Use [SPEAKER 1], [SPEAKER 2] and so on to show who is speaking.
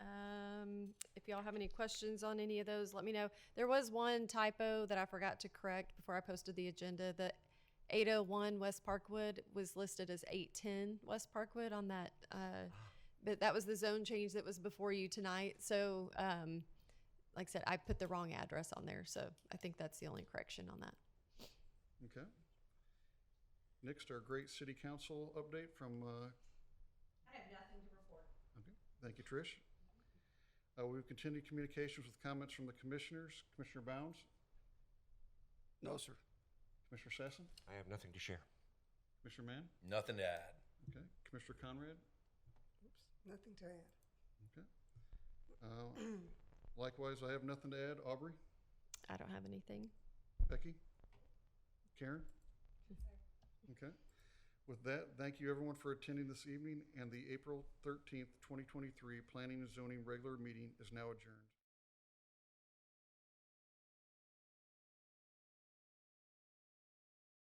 [SPEAKER 1] Um, If y'all have any questions on any of those, let me know. There was one typo that I forgot to correct before I posted the agenda. The 801 West Parkwood was listed as 810 West Parkwood on that, uh, but that was the zone change that was before you tonight. So, um, like I said, I put the wrong address on there, so I think that's the only correction on that.
[SPEAKER 2] Okay. Next, our great city council update from, uh,
[SPEAKER 3] I have nothing to report.
[SPEAKER 2] okay, thank you, Trish. Uh, we've continued communications with comments from the commissioners. Commissioner Bounds,
[SPEAKER 4] No, sir.
[SPEAKER 2] Commissioner Sassen,
[SPEAKER 5] I have nothing to share.
[SPEAKER 2] Commissioner Mann,
[SPEAKER 6] Nothing to add.
[SPEAKER 2] okay, Commissioner Conrad,
[SPEAKER 4] Nothing to add.
[SPEAKER 2] okay. Uh, Likewise, I have nothing to add. Aubrey,
[SPEAKER 1] I don't have anything.
[SPEAKER 2] Becky, Karen? Okay. With that, thank you everyone for attending this evening, and the April thirteenth, twenty twenty-three Planning and Zoning Regular Meeting is now adjourned.